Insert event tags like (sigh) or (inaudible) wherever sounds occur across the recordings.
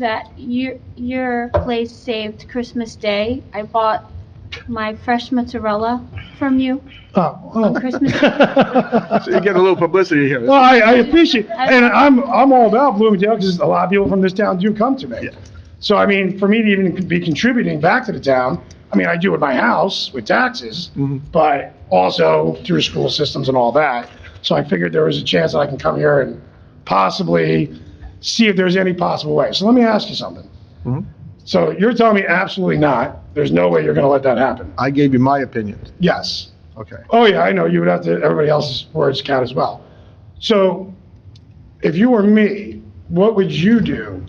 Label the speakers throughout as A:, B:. A: that your your place saved Christmas Day. I bought my fresh mozzarella from you.
B: Oh, oh.
A: On
B: (laughs)
A: Christmas.
C: So you get a little publicity here.
B: Well, I, I appreciate, and I'm, I'm all about Bloomingdale, because a lot of people from this town do come to me. So I mean, for me to even be contributing back to the town, I mean, I do at my house with taxes,
C: Mhm.
B: but also through school systems and all that. So I figured there was a chance that I can come here and possibly see if there's any possible way. So let me ask you something.
C: Mhm.
B: So you're telling me absolutely not, there's no way you're gonna let that happen?
C: I gave you my opinion.
B: Yes.
C: Okay.
B: Oh, yeah, I know. You would have to, everybody else's words count as well. So if you were me, what would you do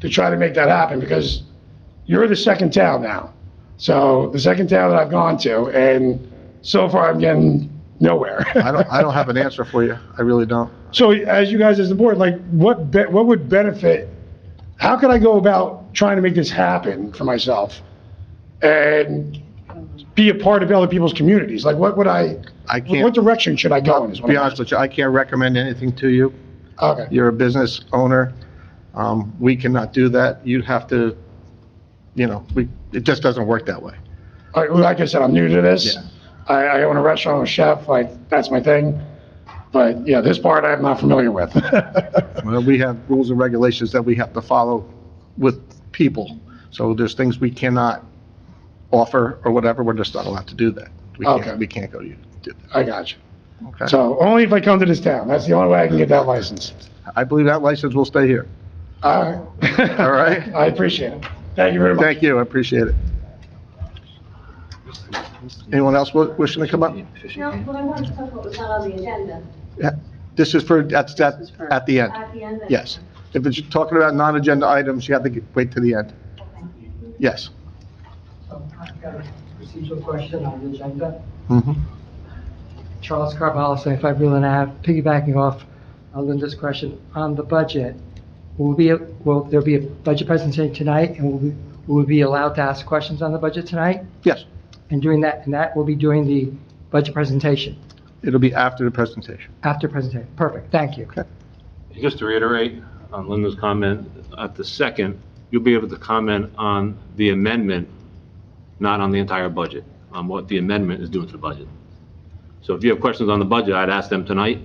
B: to try to make that happen? Because you're the second town now. So the second town that I've gone to, and so far I'm getting nowhere.
C: I don't, I don't have an answer for you. I really don't.
B: (laughs) So as you guys as the board, like what, be- what would benefit, how could I go about trying to make this happen for myself? And be a part of other people's communities? Like what would I,
C: I
B: what
C: can't,
B: direction should I go in? is
C: to
B: what I'm
C: be honest with you, I can't recommend anything to you.
B: Okay,
C: You're a business owner. Um, we cannot do that. You'd have to, you know, we, it just doesn't work that way.
B: All right, well, like I said, I'm new to this.
C: Yeah.
B: I, I own a restaurant, I'm a chef, like, that's my thing. But yeah, this part I'm not familiar with. (laughs)
C: Well, we have rules and regulations that we have to follow with people. So there's things we cannot offer or whatever. We're just not allowed to do that. We
B: Okay.
C: can't, we can't go to you. to do
B: I got you.
C: that. Okay.
B: So only if I come to this town, that's the only way I can get that license.
C: I believe that license will stay here.
B: All right.
C: All
B: (laughs)
C: right.
B: I appreciate it. Thank you very much.
C: Thank you, I appreciate it. Anyone else wi- wishing to come up?
D: No, but I wanted to talk about was not on the agenda
C: Yeah, This is for, that's, that's at the end,
D: at the end. of-
C: yes. If it's talking about non-agenda items, you have to get- wait to the end. Yes.
E: I've Um, got a procedural question on the agenda.
C: Mhm.
E: Charles Carvalho, 75 Breland Ave, piggybacking off uh, Linda's question on the budget. Will be, a- will there be a budget presentation tonight, and will we, will we be allowed to ask questions on the budget tonight?
C: Yes,
E: And doing that, and that will be during the budget presentation,
C: it'll be after the presentation.
E: after presentation. Perfect, thank you.
F: Just to reiterate on Linda's comment, at the second, you'll be able to comment on the amendment, not on the entire budget, on what the amendment is doing to the budget. So if you have questions on the budget, I'd ask them tonight.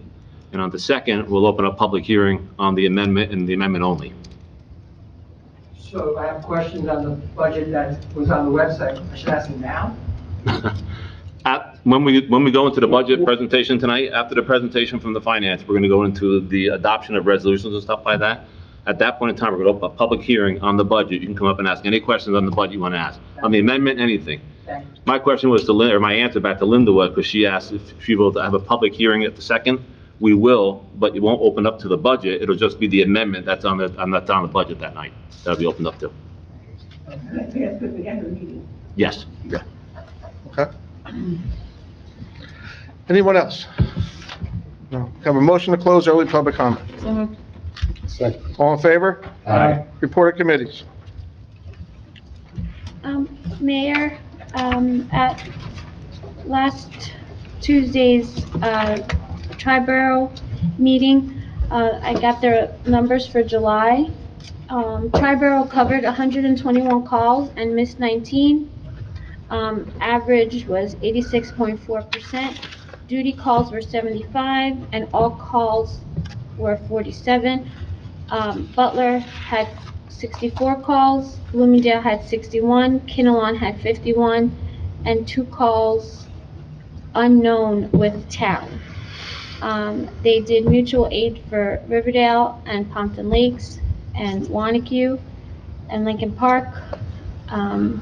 F: And on the second, we'll open up public hearing on the amendment and the amendment only.
E: So I have questions on the budget that was on the website. I should ask them now?
F: At, when we, when we go into the budget presentation tonight, after the presentation from the finance, we're going to go into the adoption of resolutions and stuff like that. At that point in time, we're going to open a public hearing on the budget. You can come up and ask any questions on the budget you want to ask, on the amendment, anything.
E: Thank you.
F: My question was to Linda, or my answer back to Linda was, because she asked if she will have a public hearing at the second. We will, but it won't open up to the budget. It'll just be the amendment that's on the, on that's on the budget that night. That'll be opened up to. Yes. Yeah.
C: Okay. Anyone else? No. Have a motion to close early public comment. All in favor?
E: Aye.
C: Report of committees.
A: Um, Mayor, um, at last Tuesday's, uh, Triborough meeting, uh, I got their numbers for July. Um, Triborough covered hundred and twenty-one calls and missed nineteen. Um, average was eighty-six point four percent. Duty calls were seventy-five and all calls were forty-seven. Um, Butler had 64 calls, Bloomingdale had 61, Kinnelon had 51, and two calls unknown with town. Um, They did mutual aid for Riverdale and Pompton Lakes and Wanacue and Lincoln Park. Um,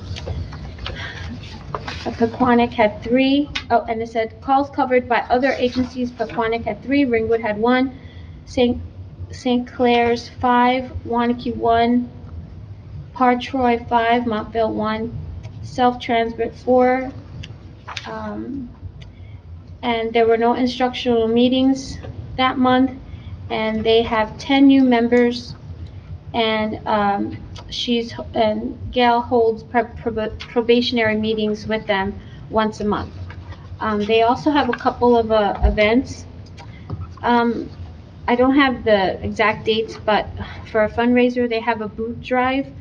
A: Paquonic had three, oh, and it said calls covered by other agencies, Paquonic had three, Ringwood had one, St. St. Clair's five, Wanacue one, Partroy five, Montville one, self-transit four. Um, and there were no instructional meetings that month, and they have ten new members. And, um, she's, and Gail holds prob- prob- probationary meetings with them once a month. Um, they also have a couple of, uh, events. Um, I don't have the exact dates, but for a fundraiser, they have a boot drive